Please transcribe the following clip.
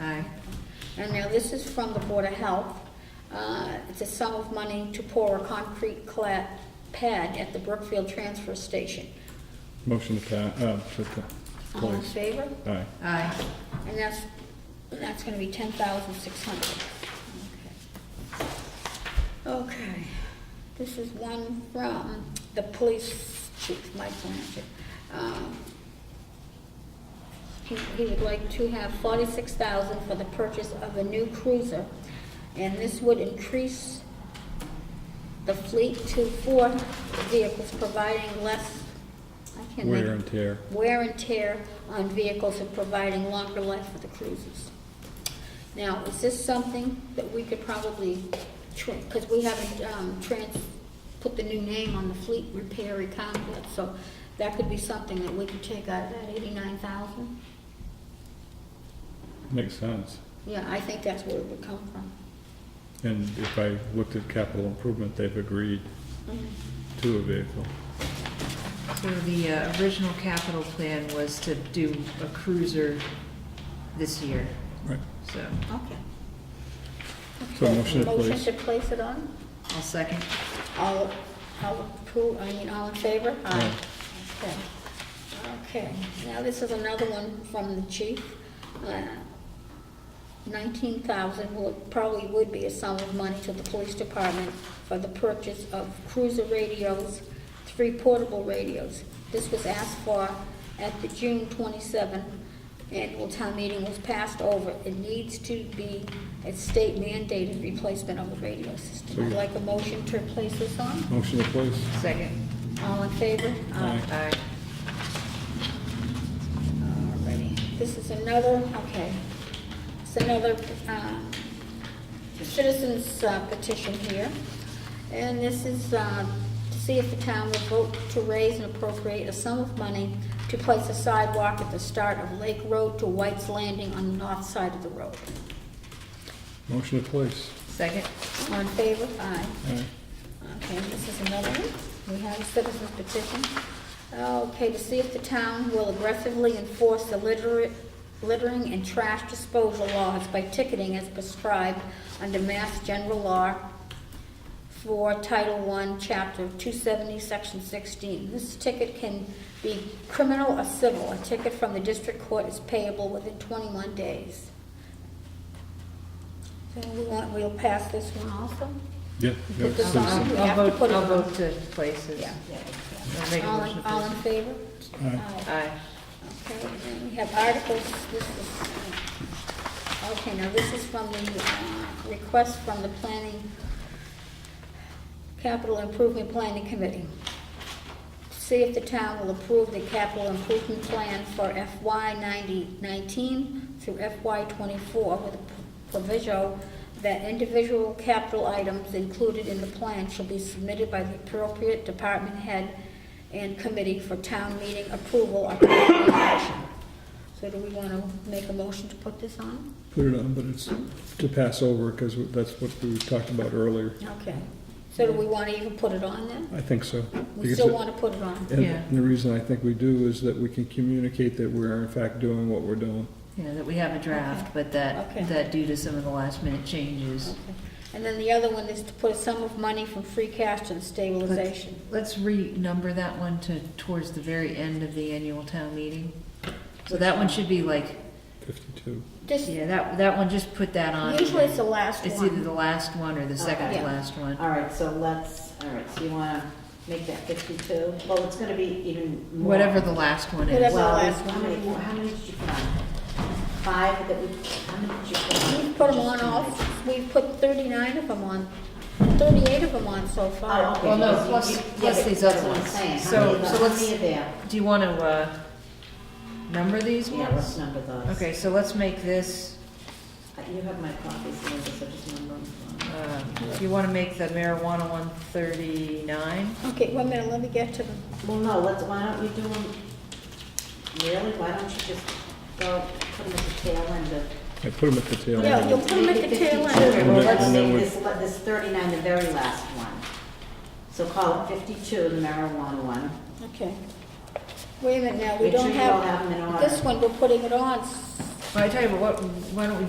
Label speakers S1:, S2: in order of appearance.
S1: Aye.
S2: And now this is from the Board of Health. Uh, It's a sum of money to pour a concrete cla- pad at the Brookfield Transfer Station.
S3: Motion to pass, uh, to, to
S2: All in
S3: place.
S2: favor?
S3: Aye.
S1: Aye.
S2: And that's, that's gonna be ten thousand six hundred. Okay, this is one from the police chief, Mike Blanchard. Um, He, he would like to have forty-six thousand for the purchase of a new cruiser, and this would increase the fleet to four vehicles, providing less, I can't make
S3: Wear and tear.
S2: wear and tear on vehicles and providing longer life for the cruisers. Now, is this something that we could probably, because we haven't um, trans, put the new name on the fleet repair account yet, so that could be something that we could take out of that eighty-nine thousand?
S3: Makes sense.
S2: Yeah, I think that's where it would come from.
S3: And if I looked at capital improvement, they've agreed to a vehicle.
S1: So the uh, original capital plan was to do a cruiser this year,
S3: Right.
S1: so
S2: Okay.
S3: So motion to place.
S2: Motion to place it on?
S1: I'll second.
S2: All, all approve, I mean, all in favor?
S3: Aye.
S2: Okay. Okay, now this is another one from the chief. Uh, Nineteen thousand would, probably would be a sum of money to the police department for the purchase of cruiser radios, three portable radios. This was asked for at the June twenty-seven annual town meeting was passed over. It needs to be a state mandated replacement of the radio system. I'd like a motion to replace this on.
S3: Motion to place.
S1: Second.
S2: All in favor?
S3: Aye.
S1: Aye.
S2: Alrighty, this is another, okay, it's another uh, citizens uh, petition here. And this is uh, to see if the town will vote to raise and appropriate a sum of money to place a sidewalk at the start of Lake Road to White's Landing on the north side of the road.
S3: Motion to place.
S1: Second.
S2: All in favor? Aye.
S3: Aye.
S2: Okay, this is another one. We have a citizen's petition. Okay, to see if the town will aggressively enforce the litter- littering and trash disposal laws by ticketing as prescribed under Mass General Law for Title I, Chapter 270, Section 16. This ticket can be criminal or civil. A ticket from the district court is payable within 21 days. So we want, we'll pass this one also?
S3: Yeah. yeah,
S2: Put this
S3: citizen.
S2: on.
S1: I'll
S2: have to
S1: vote,
S2: put it
S1: I'll
S2: on.
S1: vote to place it.
S2: Yeah.
S1: I'll make a
S2: All
S1: motion
S2: in,
S1: to
S2: all in
S1: place.
S2: favor?
S3: Aye.
S1: Aye.
S2: Okay, and then we have articles, this is, uh, okay, now this is from the, uh, request from the planning, capital improvement planning committee. See if the town will approve the capital improvement plan for FY ninety nineteen through FY twenty-four with a proviso that individual capital items included in the plan shall be submitted by the appropriate department head and committee for town meeting approval or committee action. So do we want to make a motion to put this on?
S3: Put it on, but it's to pass over because that's what we talked about earlier.
S2: Okay. So do we want to even put it on then?
S3: I think so.
S2: We
S3: Because
S2: still
S3: it-
S2: want to put it on?
S1: Yeah.
S3: And the reason I think we do is that we can communicate that we're in fact doing what we're doing.
S1: Yeah, that we have a draft, but
S2: Okay.
S1: that, that due to some of the last minute changes.
S2: Okay. And then the other one is to put a sum of money from free cash to the
S1: Let's
S2: stabilization.
S1: let's renumber that one to, towards the very end of the annual town meeting. So that one should be like,
S3: Fifty-two.
S2: Just,
S1: yeah, that, that one, just put that on.
S2: usually it's the last
S1: It's either
S2: one.
S1: the last one or the second to
S2: Yeah.
S1: last one.
S4: All right, so let's, all right, so you want to make that 52? Well, it's going to be even more.
S1: Whatever the last one
S2: Whatever.
S1: is.
S4: Well,
S2: That's the last
S4: how
S2: one.
S4: many, more- how many did you put on? Five that we, how many did you
S2: We've put
S4: put on? Oh,
S2: them on all, we've put thirty-nine of them on, thirty-eight of them on so
S4: Oh,
S2: far.
S4: okay.
S1: Well, no,
S4: You- you-
S1: plus-
S4: yeah,
S1: plus
S4: but
S1: these
S4: that's
S1: other
S4: what I'm
S1: ones.
S4: saying. How
S1: So-
S4: many-
S1: so
S4: how
S1: let's-
S4: many are there?
S1: Do you want to, uh, number these
S4: Yeah, let's
S1: ones?
S4: number those.
S1: Okay, so let's make this,
S4: Uh, You have my copies, Linda, so just number them.
S1: um, do you want to make the marijuana one thirty-nine?
S2: Okay, wait a minute, let me get to them.
S4: Well, no, let's, why don't you do them, really, why don't you just go, put them at the tail end of.
S3: I put them at the tail
S2: Yeah, you'll
S3: end.
S2: put them at the tail
S4: Okay,
S2: end.
S4: well,
S3: And
S4: let's
S3: then-
S4: say
S3: and then
S4: this, let this thirty-nine, the very last one. So call it fifty-two, the marijuana one.
S2: Okay. Wait a minute now, we
S4: Make sure
S2: don't
S4: you all have them in
S2: have,
S4: order.
S2: this one, we're putting it on s-
S1: Well, I tell you what, why don't we